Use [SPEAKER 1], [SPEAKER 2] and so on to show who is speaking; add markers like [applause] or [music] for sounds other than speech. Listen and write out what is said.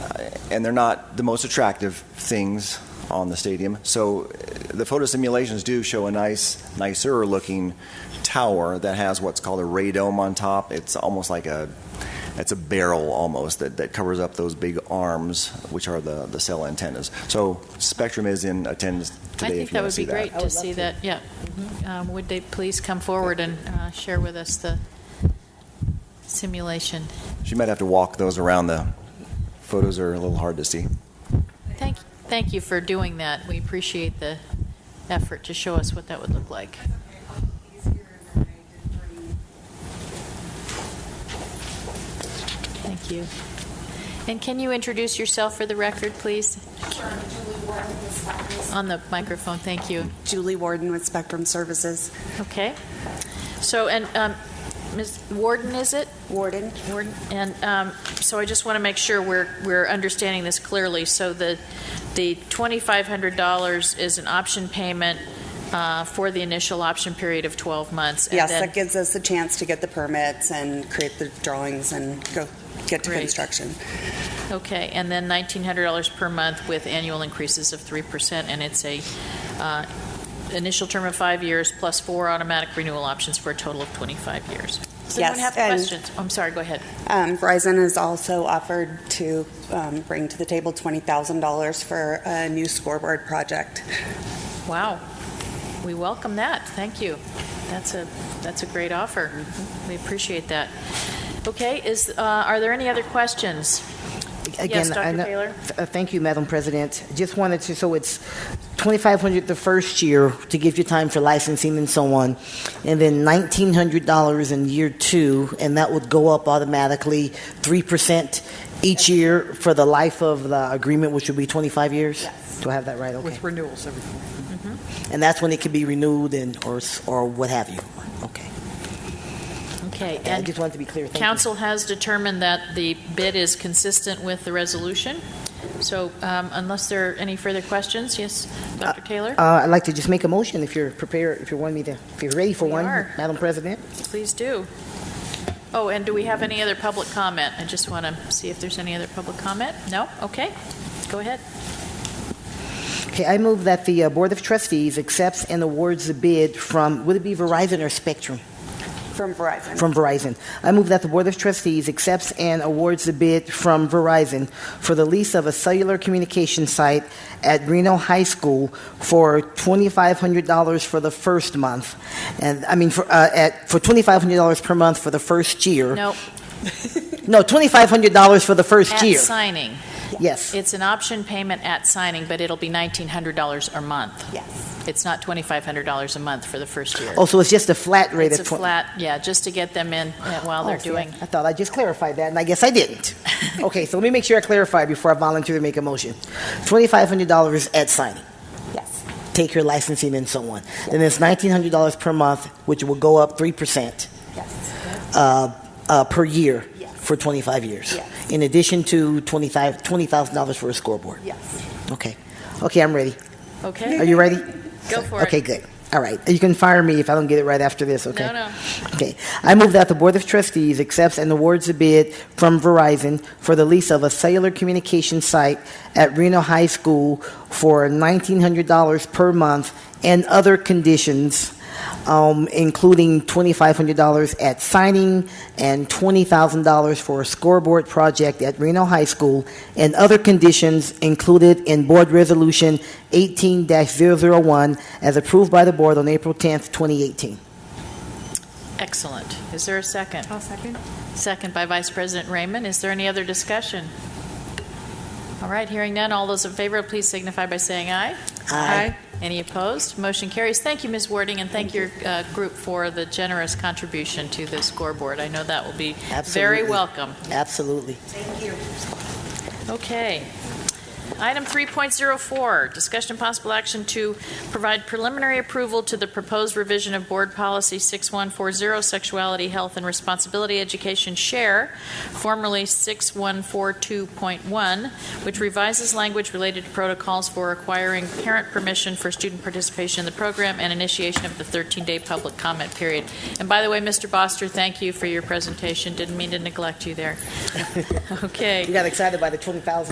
[SPEAKER 1] Uh, and they're not the most attractive things on the stadium. So uh, the photo simulations do show a nice, nicer looking tower that has what's called a ray dome on top. It's almost like a it's a barrel almost that, that covers up those big arms, which are the, the cell antennas. So Spectrum is in attendance today.
[SPEAKER 2] I
[SPEAKER 1] if
[SPEAKER 2] think
[SPEAKER 1] you
[SPEAKER 2] that
[SPEAKER 1] wanna
[SPEAKER 2] would
[SPEAKER 1] see
[SPEAKER 2] be great
[SPEAKER 3] I
[SPEAKER 2] to
[SPEAKER 3] would
[SPEAKER 2] see
[SPEAKER 3] love
[SPEAKER 2] that, yeah. Um, Would they please come forward and uh, share with us the simulation?
[SPEAKER 1] She might have to walk those around. The photos are a little hard to see.
[SPEAKER 2] Thank, thank you for doing that. We appreciate the effort to show us what that would look like. Thank you. And can you introduce yourself for the record, please? On the microphone, thank you.
[SPEAKER 4] Uh,
[SPEAKER 1] Mm-hmm.
[SPEAKER 4] Julie Warden with Spectrum Services.
[SPEAKER 2] Okay. So, and um, Ms. Warden, is it?
[SPEAKER 4] Warden,
[SPEAKER 2] Warden, And um, so I just want to make sure we're, we're understanding this clearly. So the, the $2,500 is an option payment uh, for the initial option period of 12 months. and
[SPEAKER 4] yes,
[SPEAKER 2] then-
[SPEAKER 4] that gives us a chance to get the permits and create the drawings and go get to
[SPEAKER 2] Great.
[SPEAKER 4] construction.
[SPEAKER 2] Okay, and then $1,900 per month with annual increases of 3%, and it's a uh, initial term of five years plus four automatic renewal options for a total of 25 years. Does anyone
[SPEAKER 4] Yes,
[SPEAKER 2] have
[SPEAKER 4] and-
[SPEAKER 2] questions? I'm sorry, go ahead.
[SPEAKER 4] Um, Verizon has also offered to um, bring to the table $20,000 for a new scoreboard project.
[SPEAKER 2] Wow. We welcome that. Thank you. That's a, that's a great offer.
[SPEAKER 3] Mm-hmm.
[SPEAKER 2] We appreciate that. Okay, is, uh, are there any other questions?
[SPEAKER 3] Again,
[SPEAKER 2] Dr.
[SPEAKER 3] I know-
[SPEAKER 2] Taylor?
[SPEAKER 3] th- uh, Thank you, Madam President. Just wanted to, so it's 2,500 the first year to give you time for licensing and so on, and then $1,900 in year two, and that would go up automatically 3% each year for the life of the agreement, which would be 25 years?
[SPEAKER 4] Yes.
[SPEAKER 3] Do I have that right? Okay. Mm-hmm.
[SPEAKER 5] With renewals every year.
[SPEAKER 3] And that's when it can be renewed and, or, s- or what have you? Okay.
[SPEAKER 2] Okay,
[SPEAKER 3] I
[SPEAKER 2] and
[SPEAKER 3] just wanted to be clear. Thank you.
[SPEAKER 2] council has determined that the bid is consistent with the resolution. So um, unless there are any further questions, yes, Dr. Taylor,
[SPEAKER 3] Uh, I'd like to just make a motion if you're prepared, if you want me to, if you're ready for
[SPEAKER 2] We
[SPEAKER 3] one,
[SPEAKER 2] are.
[SPEAKER 3] Madam President.
[SPEAKER 2] please do. Oh, and do we have any other public comment? I just want to see if there's any other public comment. No? Okay, go ahead.
[SPEAKER 3] Okay, I move that the uh, Board of Trustees accepts and awards the bid from, would it be Verizon or Spectrum?
[SPEAKER 4] From Verizon.
[SPEAKER 3] From Verizon. I move that the Board of Trustees accepts and awards the bid from Verizon for the lease of a cellular communication site at Reno High School for $2,500 for the first month, and, I mean, for, uh, at, for $2,500 per month for the first year.
[SPEAKER 2] No,
[SPEAKER 3] No, $2,500 for the first
[SPEAKER 2] at
[SPEAKER 3] year.
[SPEAKER 2] signing.
[SPEAKER 3] Yes.
[SPEAKER 2] It's an option payment at signing, but it'll be $1,900 a month.
[SPEAKER 4] Yes.
[SPEAKER 2] It's not $2,500 a month for the first year.
[SPEAKER 3] Oh, so it's just a flat rate
[SPEAKER 2] It's
[SPEAKER 3] of
[SPEAKER 2] a
[SPEAKER 3] 20?
[SPEAKER 2] flat, yeah, just to get them in uh, while they're
[SPEAKER 3] Oh, see, I-
[SPEAKER 2] doing. [laughs]
[SPEAKER 3] I thought I just clarified that, and I guess I didn't. Okay, so let me make sure I clarify before I volunteer to make a motion. $2,500 at signing,
[SPEAKER 4] Yes.
[SPEAKER 3] take your licensing and so on. Then it's $1,900 per month, which will go up 3%
[SPEAKER 4] Yes.
[SPEAKER 3] uh, uh, per year
[SPEAKER 4] Yes.
[SPEAKER 3] for 25 years.
[SPEAKER 4] Yes.
[SPEAKER 3] In addition to 25 $20,000 for a scoreboard.
[SPEAKER 4] Yes.
[SPEAKER 3] Okay, okay, I'm ready. Are
[SPEAKER 2] Okay,
[SPEAKER 3] you ready?
[SPEAKER 2] go for it.
[SPEAKER 3] Okay, good. All right, you can fire me if I don't get it right after this, okay?
[SPEAKER 2] No, no.
[SPEAKER 3] Okay. I move that the Board of Trustees accepts and awards a bid from Verizon for the lease of a cellular communication site at Reno High School for $1,900 per month and other conditions, um, including $2,500 at signing and $20,000 for a scoreboard project at Reno High School, and other conditions included in Board Resolution 18-001 as approved by the Board on April 10th, 2018.
[SPEAKER 2] Excellent. Is there a second?
[SPEAKER 6] I'll second.
[SPEAKER 2] Second by Vice President Raymond. Is there any other discussion? All right, hearing none, all those in favor, please signify by saying aye.
[SPEAKER 6] Aye.
[SPEAKER 2] Any opposed? Motion carries. Thank you, Ms. Warding, and thank your uh, group for the generous contribution to the scoreboard. I know that will be very
[SPEAKER 3] Absolutely.
[SPEAKER 2] welcome.
[SPEAKER 3] Absolutely.
[SPEAKER 2] Okay. Item 3.04, discussion and possible action to provide preliminary approval to the proposed revision of Board Policy 6140, Sexuality, Health, and Responsibility Education Share, formerly 6142.1, which revises language related to protocols for acquiring parent permission for student participation in the program and initiation of the 13-day public comment period. And by the way, Mr. Boster, thank you for your presentation. Didn't mean to neglect you there. [laughs] Okay.
[SPEAKER 3] You got excited by the 20,000.